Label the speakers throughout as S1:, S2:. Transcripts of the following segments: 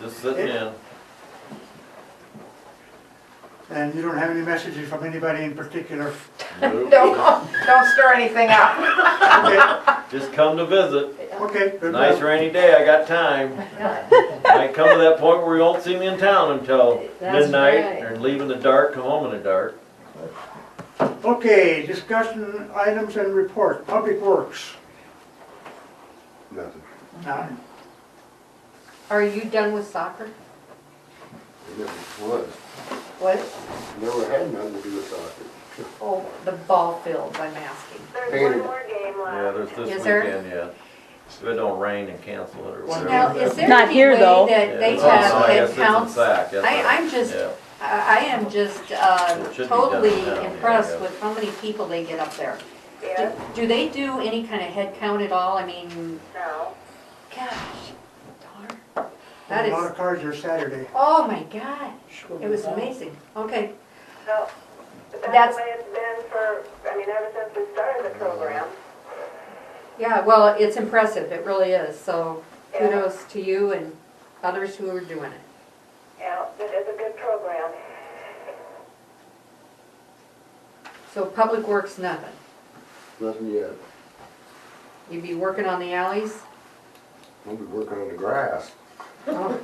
S1: just sitting in.
S2: And you don't have any messages from anybody in particular?
S1: Nope.
S3: Don't, don't stir anything up.
S2: Okay,
S1: Just come to visit.
S2: Okay. good
S1: Nice
S2: luck.
S1: rainy day, I got time. Might come to that point where you won't see me in town until
S4: That's
S1: midnight
S4: right.
S1: or leave in the dark, come home in the dark.
S2: Okay, discussion items and report, Public Works.
S5: Nothing.
S2: None.
S4: Are you done with soccer?
S5: It never was.
S4: What?
S5: Never had nothing to do with soccer.
S4: Oh, the ball fields, I'm asking.
S6: There's
S5: Painted.
S6: one more game
S1: Yeah,
S6: left.
S1: there's this
S4: Yes, sir.
S1: weekend, yeah. If it don't rain and cancel it or
S2: One
S1: whatever.
S4: Now, is there
S7: Not
S4: any
S7: here,
S4: way
S7: though.
S1: Yeah,
S4: that they
S1: it's-
S4: have,
S1: oh, I guess
S4: that
S1: it's in
S4: counts?
S1: Sac, that's
S4: I,
S1: right.
S4: I'm just,
S1: Yeah.
S4: I I am just
S1: It should
S4: uh,
S1: be done
S4: totally
S1: now, yeah, yeah.
S4: impressed with how many people they get up there. Do-
S6: Yes,
S4: Do they do any kind of head count at all? I mean,
S6: no.
S4: gosh, darn. That
S2: A lot
S4: is,
S2: of cars here Saturday.
S4: oh my God, it was amazing. Okay,
S6: So, but
S4: That's-
S6: that's the way it's been for, I mean, ever since we started the program.
S4: Yeah, well, it's impressive, it really is, so kudos to you and others who are doing it.
S6: Yeah, it is a good program.
S4: So Public Works, nothing.
S5: Nothing yet.
S4: You'd be working on the alleys?
S5: We'll be working on the grass.
S4: Oh,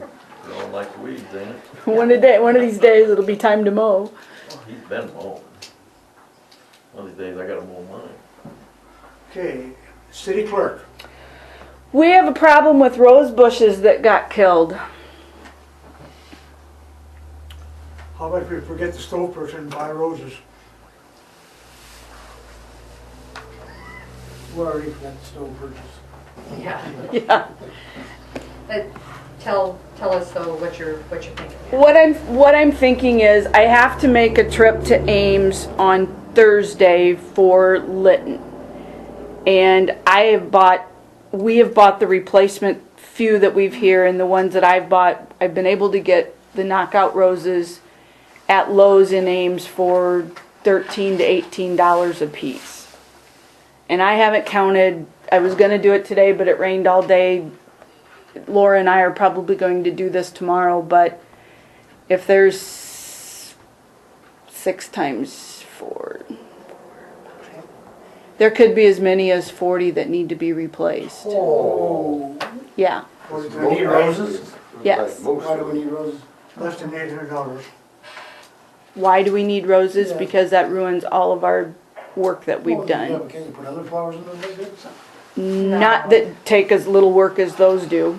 S1: You Don't like weeds, ain't it?
S7: One a day, one of these days, it'll be time to mow.
S1: Oh, He's been mowing. One of these days I gotta mow mine.
S2: Okay, City Clerk.
S7: We have a problem with rose bushes that got killed.
S2: How about if we forget the stove person and buy roses? We already forgot the stove person.
S4: Yeah,
S7: Yeah.
S4: but Uh, tell, tell us though what you're, what you're thinking.
S7: What I'm what I'm thinking is I have to make a trip to Ames on Thursday for Lytton. And I have bought we have bought the replacement few that we've here and the ones that I've bought I've been able to get the knockout roses at Lowe's in Ames for thirteen to eighteen dollars a piece. And I haven't counted I was gonna do it today but it rained all day. Laura and I are probably going to do this tomorrow, but if there's six times four, there could be as many as 40 that need to be replaced.
S8: Oh,
S7: Yeah.
S8: Need roses?
S7: Yes.
S5: Like most
S8: why do
S5: of
S8: we need
S5: them.
S8: roses?
S2: Less than eight hundred dollars.
S7: Why do we need roses?
S8: Yeah.
S7: Because that ruins all of our work that we've
S8: Well, yeah,
S7: done.
S8: but Can you put other flowers in them, like that?
S7: Not that take as little work as those do.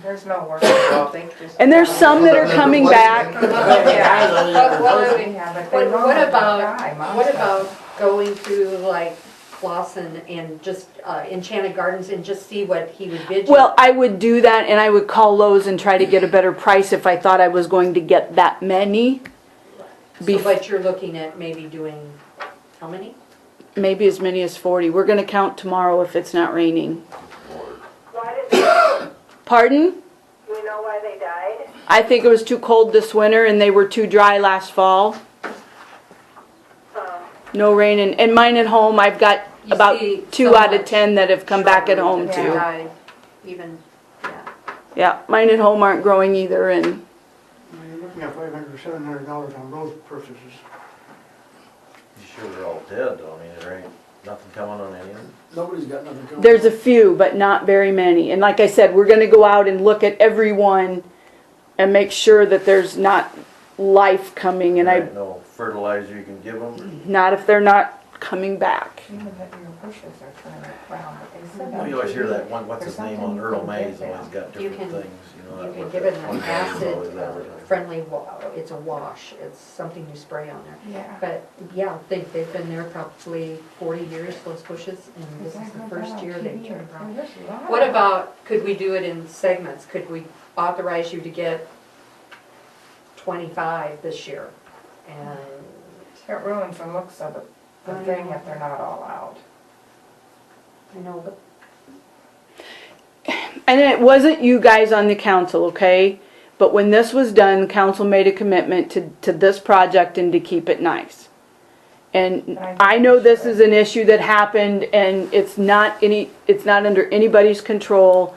S3: There's no work involved, they just.
S7: And there's some that are coming back.
S4: But what,
S3: Yeah, but they
S4: what-
S3: know
S4: what
S3: they die, most
S4: about, what
S3: of them.
S4: about going to like Lawson and just uh, Enchanted Gardens and just see what he would bid you?
S7: Well, I would do that and I would call Lowe's and try to get a better price if I thought I was going to get that many.
S4: So,
S7: bef-
S4: But you're looking at maybe doing, how many?
S7: Maybe as many as 40. We're going to count tomorrow if it's not raining.
S6: Why did, they-
S7: Pardon?
S6: do we know why they died?
S7: I think it was too cold this winter and they were too dry last fall.
S6: Um,
S7: No rain and, and mine at home, I've got
S4: You
S7: about
S4: see
S7: two
S4: so
S7: out of
S4: much
S7: ten that have come back at home
S4: Yeah.
S7: too.
S4: Yeah, Even, yeah.
S7: Yeah, mine at home aren't growing either and,
S2: You're looking at five hundred or seven hundred dollars on rose purchases.
S1: You sure they're all dead though, I mean, there ain't nothing coming on any of them.
S8: Nobody's got nothing coming.
S7: there's a few, but not very many. And like I said, we're gonna go out and look at everyone and make sure that there's not life coming and I,
S1: Ain't No fertilizer you can give them.
S7: not if they're not coming back.
S3: Even if your bushes are turning brown, but they said.
S1: Oh, You always hear that one, what's his name on Earl May's always got
S4: You
S1: different
S4: can-
S1: things, you know.
S4: You
S1: that
S4: can
S1: one-
S4: give it
S1: that
S4: an
S1: one guy's always
S4: acid uh,
S1: advertising.
S4: friendly, wa- it's a wash, it's something you spray on there.
S3: Yeah.
S4: But yeah, they, they've been there probably forty years, those bushes, and this is the first year they've turned brown. What about, could we do it in segments? Could we authorize you to get twenty-five this year? And,
S3: It ruins the looks of the, the thing if they're not all out.
S4: you know, but
S7: And it wasn't you guys on the council, okay? But when this was done, the council made a commitment to, to this project and to keep it nice. And I know this is an issue that happened and it's not any, it's not under anybody's control.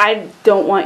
S7: I don't want